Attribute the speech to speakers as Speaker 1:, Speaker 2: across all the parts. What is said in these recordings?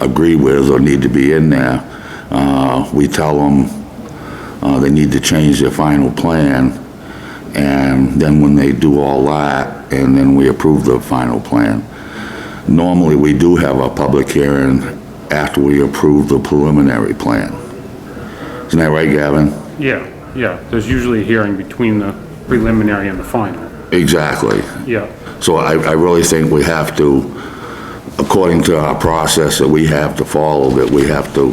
Speaker 1: agree with or need to be in there, uh, we tell them uh, they need to change their final plan, and then when they do all that, and then we approve the final plan. Normally, we do have a public hearing after we approve the preliminary plan. Isn't that right, Gavin?
Speaker 2: Yeah, yeah, there's usually a hearing between the preliminary and the final,
Speaker 1: Exactly.
Speaker 2: yeah.
Speaker 1: So I, I really think we have to, according to our process that we have to follow, that we have to,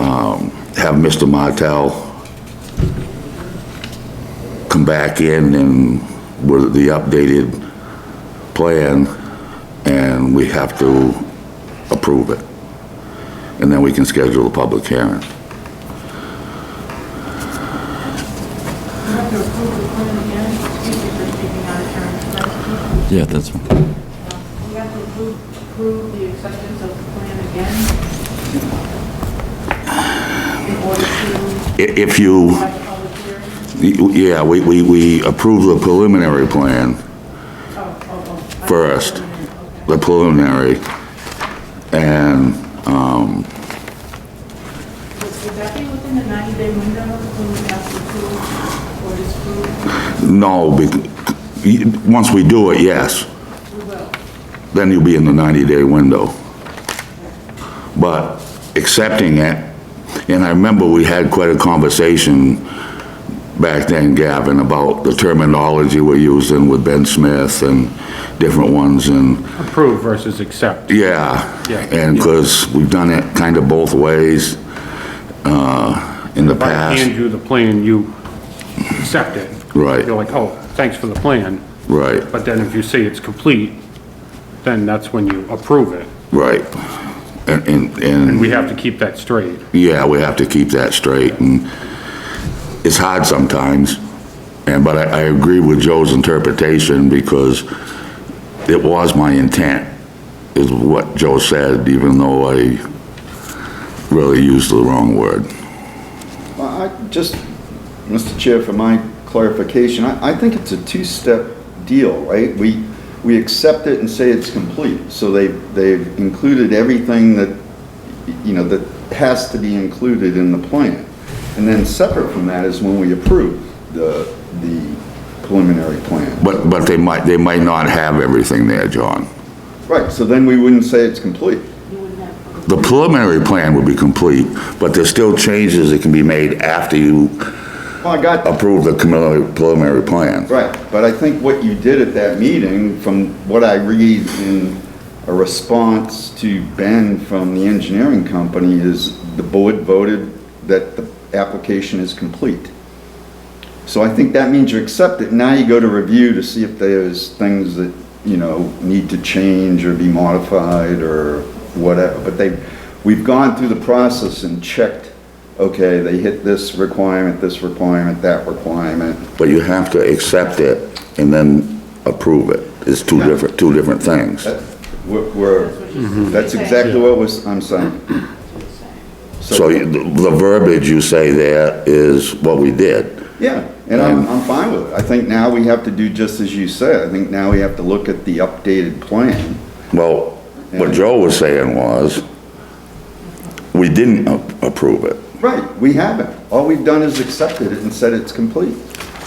Speaker 1: um, have Mr. Martel come back in and with the updated plan, and we have to approve it. And then we can schedule a public hearing.
Speaker 3: You have to approve the plan again, excuse me for speaking out of turn, Can I
Speaker 4: Yeah, that's fine.
Speaker 3: speak? You have to approve, approve the acceptance of the plan again in order to
Speaker 1: I- If you.
Speaker 3: have a public hearing?
Speaker 1: Yeah, we, we, we approve the preliminary plan
Speaker 3: Oh, oh, oh. I-
Speaker 1: first, the preliminary, and, um,
Speaker 3: Would would that be within the 90-day window when we have to approve or disapprove?
Speaker 1: no, bec- y- once we do it, yes,
Speaker 3: We will.
Speaker 1: then you'll be in the 90-day window. But accepting it, and I remember we had quite a conversation back then, Gavin, about the terminology we're using with Ben Smith and different ones, and
Speaker 2: Approve versus accept,
Speaker 1: Yeah.
Speaker 2: Yeah.
Speaker 1: And because we've done it kind of both ways uh, in the
Speaker 2: if I hand
Speaker 1: past.
Speaker 2: you the plan, you accept it.
Speaker 1: Right.
Speaker 2: You're like, oh, thanks for the plan,
Speaker 1: Right,
Speaker 2: but then if you say it's complete, then that's when you approve it.
Speaker 1: right. And, and- and,
Speaker 2: We have to keep that straight.
Speaker 1: yeah, we have to keep that straight and it's hard sometimes. And, but I, I agree with Joe's interpretation because it was my intent, is what Joe said, even though I really used the wrong word.
Speaker 5: Well, I, just, Mr. Chair, for my clarification, I, I think it's a two-step deal, right? We, we accept it and say it's complete, so they, they've included everything that, y- you know, that has to be included in the plan. And then separate from that is when we approve the, the preliminary plan.
Speaker 1: But, but they might, they might not have everything there, John.
Speaker 5: Right, so then we wouldn't say it's complete.
Speaker 1: The preliminary plan would be complete, but there's still changes that can be made after you
Speaker 5: Well, I got,
Speaker 1: approve the preliminary- preliminary plan.
Speaker 5: Right, but I think what you did at that meeting, from what I read in a response to Ben from the engineering company, is the board voted that the application is complete. So I think that means you accept it, now you go to review to see if there's things that, you know, need to change or be modified or whatever, but they, we've gone through the process and checked, okay, they hit this requirement, this requirement, that requirement,
Speaker 1: But you have to accept it and then approve it. It's two different, two different things.
Speaker 2: Uh,
Speaker 5: We're- We're, that's exactly what was, I'm saying.
Speaker 1: So you- the verbiage you say there is what we did.
Speaker 5: Yeah, and I'm, I'm fine with it. I think now we have to do just as you said. I think now we have to look at the updated plan.
Speaker 1: Well, what Joe was saying was, we didn't a- approve it.
Speaker 5: Right, we haven't. All we've done is accepted it and said it's complete.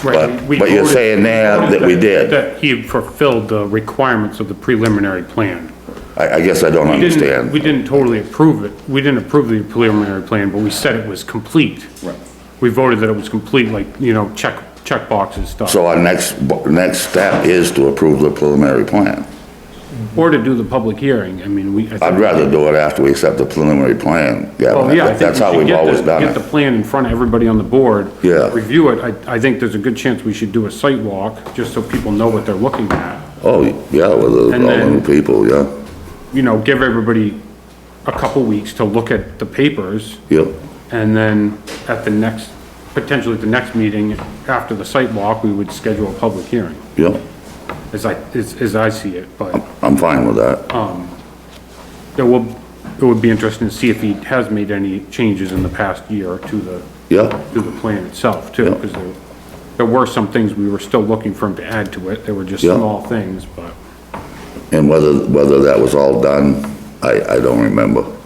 Speaker 2: Right.
Speaker 1: But-
Speaker 2: we- we
Speaker 1: but you're
Speaker 2: voted-
Speaker 1: saying now that we did.
Speaker 2: That he fulfilled the requirements of the preliminary plan.
Speaker 1: I, I guess I don't
Speaker 2: We didn't, we
Speaker 1: understand.
Speaker 2: didn't totally approve it. We didn't approve the preliminary plan, but we said it was complete.
Speaker 5: Right.
Speaker 2: We voted that it was complete, like, you know, check, check boxes stuff.
Speaker 1: So our next, bo- next step is to approve the preliminary plan.
Speaker 2: Or to do the public hearing. I mean, we. I think-
Speaker 1: I'd rather do it after we accept the preliminary plan,
Speaker 2: Well,
Speaker 1: Gavin.
Speaker 2: yeah, I think
Speaker 1: That's
Speaker 2: we
Speaker 1: how
Speaker 2: should
Speaker 1: we've
Speaker 2: get the-
Speaker 1: always done
Speaker 2: Get the
Speaker 1: it.
Speaker 2: plan in front of everybody on the board.
Speaker 1: Yeah.
Speaker 2: Review it. I, I think there's a good chance we should do a site walk, just so people know what they're looking at.
Speaker 1: Oh, yeah, with the-
Speaker 2: And
Speaker 1: all the
Speaker 2: then-
Speaker 1: new people, yeah,
Speaker 2: You know, give everybody a couple weeks to look at the papers.
Speaker 1: yep.
Speaker 2: And then at the next, potentially at the next meeting, after the site walk, we would schedule a public hearing,
Speaker 1: Yep,
Speaker 2: as I, as, as I see it, but
Speaker 1: I'm fine with that.
Speaker 2: it will, it would be interesting to see if he has made any changes in the past year to the,
Speaker 1: Yep,
Speaker 2: to the plan itself too,
Speaker 1: Yeah.
Speaker 2: because there, there were some things we were still looking for him to add to it, they were just
Speaker 1: Yeah.
Speaker 2: small things, but.
Speaker 1: and whether, whether that was all done, I, I don't remember.